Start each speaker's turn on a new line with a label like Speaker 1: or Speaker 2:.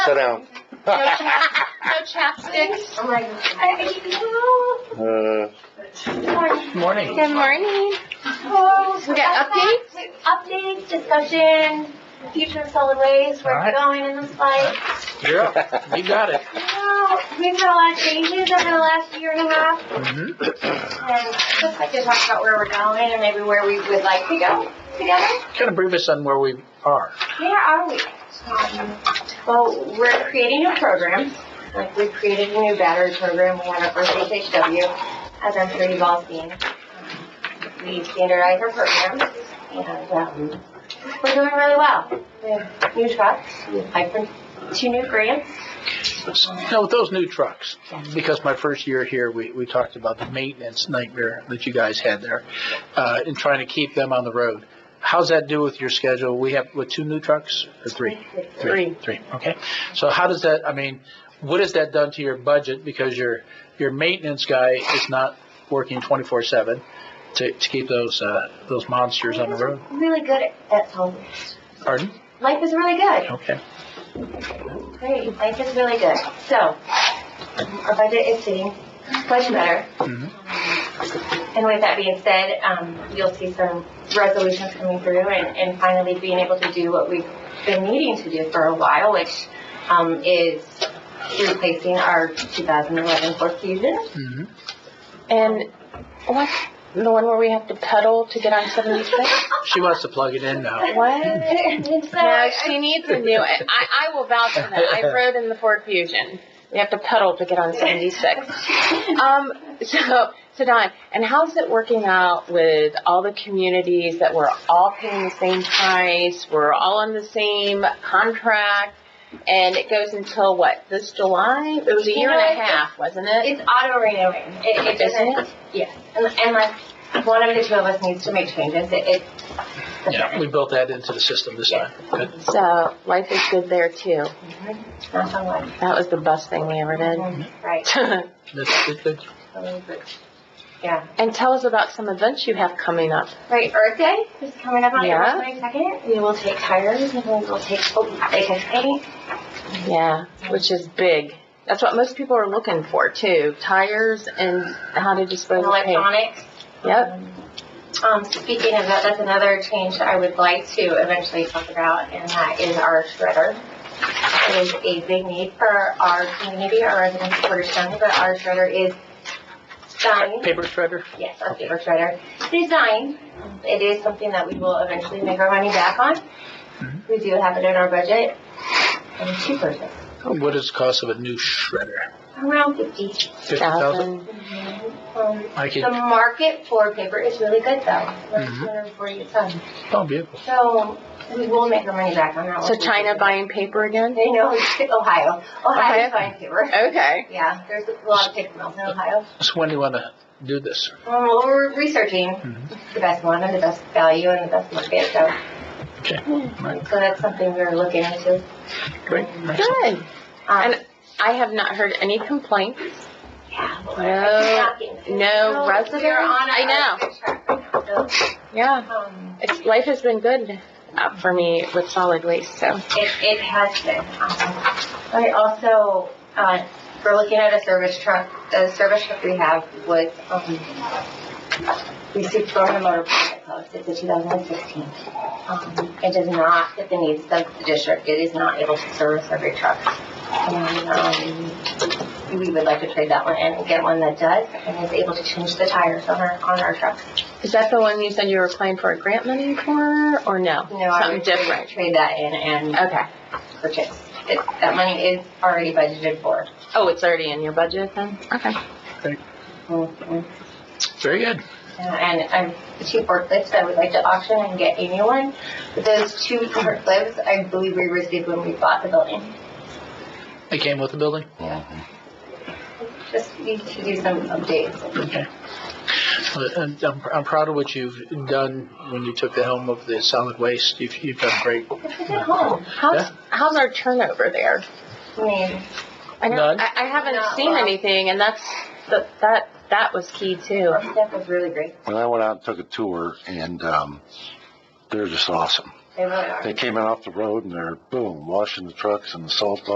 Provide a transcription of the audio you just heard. Speaker 1: Sit down.
Speaker 2: No chap- no chapsticks.
Speaker 1: Uh,
Speaker 3: Morning.
Speaker 2: Good morning. We got updates?
Speaker 4: Updates, discussion, future of solid waste, where
Speaker 3: Alright.
Speaker 4: we're going in this fight.
Speaker 3: You're up. You got it.
Speaker 4: Well, We've had a lot of changes over the last year and a half,
Speaker 3: hmm
Speaker 4: and just like to talk about where we're going and maybe where we would like to go together.
Speaker 3: Kind of brief us on where we are.
Speaker 4: Where are we? Um, Well, we're creating new programs. Like we created a new battery program, one at Earth HHW, as I'm sure you've all seen. We standardize our programs and um, we're doing really well. We have new trucks, we applied for two new grants.
Speaker 3: Now, with those new trucks, because my first year here, we, we talked about the maintenance nightmare that you guys had there, uh, in trying to keep them on the road. How's that do with your schedule? We have, with two new trucks or three? Three. Three, okay. So how does that, I mean, what has that done to your budget? Because your, your maintenance guy is not working twenty-four seven to, to keep those, uh, those monsters on the road.
Speaker 4: Really good at home.
Speaker 3: Pardon?
Speaker 4: Life is really good.
Speaker 3: Okay.
Speaker 4: Great, life is really good. So, our budget is sitting much better.
Speaker 3: Mhm.
Speaker 4: And with that being said, um, you'll see some resolutions coming through and, and finally being able to do what we've been needing to do for a while, which, um, is replacing our 2011 Ford Fusion.
Speaker 3: Mhm.
Speaker 2: And what? The one where we have to pedal to get on 76?
Speaker 3: She wants to plug it in now.
Speaker 2: What?
Speaker 4: And so,
Speaker 2: No,
Speaker 4: I-
Speaker 2: she needs a new. I, I will vouch for that. I rode in the Ford Fusion. We have to pedal to get on 76. Um, so, so Don, and how's it working out with all the communities that we're all paying the same price? We're all on the same contract, and it goes until what? This July? It was a year and a half, wasn't it?
Speaker 4: It's auto renewing. It, it
Speaker 2: Isn't
Speaker 4: doesn't, yes, Un- unless one of the two of us needs to make changes, it, it.
Speaker 3: Yeah, we built that into the system this time. Good.
Speaker 2: So life is good there too.
Speaker 4: Knock on wood.
Speaker 2: That was the best thing we ever did.
Speaker 4: Right.
Speaker 3: That's good, good.
Speaker 4: Yeah.
Speaker 2: and tell us about some events you have coming up.
Speaker 4: Right, Earth Day is coming up on
Speaker 2: Yeah.
Speaker 4: April 22nd. We will take tires and we will take, oh, they take paint.
Speaker 2: Yeah, which is big. That's what most people are looking for too. Tires and how to dispose of paint.
Speaker 4: electronics.
Speaker 2: Yep.
Speaker 4: Um, speaking of that, that's another change that I would like to eventually talk about, and that is our shredder. It is a big need for our community, our residents of Portage County, but our shredder is dying.
Speaker 3: Paper shredder?
Speaker 4: Yes, our paper shredder design. It is something that we will eventually make our money back on.
Speaker 2: Mm-hmm.
Speaker 4: We do have it in our budget. And two person,
Speaker 3: What is the cost of a new shredder?
Speaker 4: around fifty.
Speaker 3: Fifty thousand?
Speaker 2: Thousand.
Speaker 4: Um,
Speaker 3: I
Speaker 4: The
Speaker 3: could,
Speaker 4: market for paper is really good though, like
Speaker 3: Mhm.
Speaker 2: Mm-hmm.
Speaker 4: two hundred and forty a ton.
Speaker 3: oh, beautiful.
Speaker 4: So we will make our money back on that
Speaker 2: So
Speaker 4: one.
Speaker 2: China buying paper again?
Speaker 4: They know, it's Ohio.
Speaker 2: Ohio?
Speaker 4: Ohio buying paper.
Speaker 2: Okay.
Speaker 4: Yeah, there's a lot of paper mills in Ohio.
Speaker 3: So when do you want to do this?
Speaker 4: Um, well, we're researching
Speaker 3: Mhm.
Speaker 2: Mm-hmm.
Speaker 4: the best one and the best value and the best market, so.
Speaker 3: Okay. Right.
Speaker 4: So that's something we're looking into.
Speaker 3: Great. Excellent.
Speaker 2: Good.
Speaker 4: Um,
Speaker 2: And- I have not heard any complaints.
Speaker 4: yeah, well, I-
Speaker 2: No-
Speaker 4: I keep knocking.
Speaker 2: no
Speaker 4: we're
Speaker 2: residents?
Speaker 4: on a-
Speaker 2: I know.
Speaker 4: a track right now, so,
Speaker 2: Yeah.
Speaker 4: um,
Speaker 2: It's, life has been good uh, for me with solid waste. So
Speaker 4: It, it has been. Um, I also, uh, we're looking at a service truck, the service truck we have was, um, received Florida Motor Pilot Code, it's a 2016. Um, It does not fit the needs of the district, it is not able to service every truck. And, um, we would like to trade that one in and get one that does and is able to change the tires on our, on our trucks.
Speaker 2: is that the one you said you were applying for a grant money for, or no?
Speaker 4: No, I
Speaker 2: Something
Speaker 4: would trade-
Speaker 2: different.
Speaker 4: Trade that in and
Speaker 2: Okay.
Speaker 4: purchase. It- That money is already budgeted for.
Speaker 2: Oh, it's already in your budget then. Okay.
Speaker 4: Mhm.
Speaker 3: Very good.
Speaker 4: Yeah, And I'm the two forklifts I would like to auction and get a new one. But those two forklifts, I believe we received when we bought the building.
Speaker 3: It came with the building?
Speaker 4: Just need to do some updates.
Speaker 3: Okay. Well, and I'm, I'm proud of what you've done when you took the helm of the solid waste. You've, you've done great.
Speaker 4: It's a good home.
Speaker 2: How's
Speaker 3: Yeah.
Speaker 2: how's our turnover there?
Speaker 4: I mean,
Speaker 2: I know.
Speaker 3: None?
Speaker 2: I, I haven't
Speaker 4: No,
Speaker 2: seen
Speaker 4: well.
Speaker 2: anything, and that's that that that was key too.
Speaker 4: our staff was really great.
Speaker 5: Well, I went out and took a tour and, um, they're just awesome.
Speaker 4: They really are.
Speaker 5: They came in off the road and they're boom, washing the trucks and the salt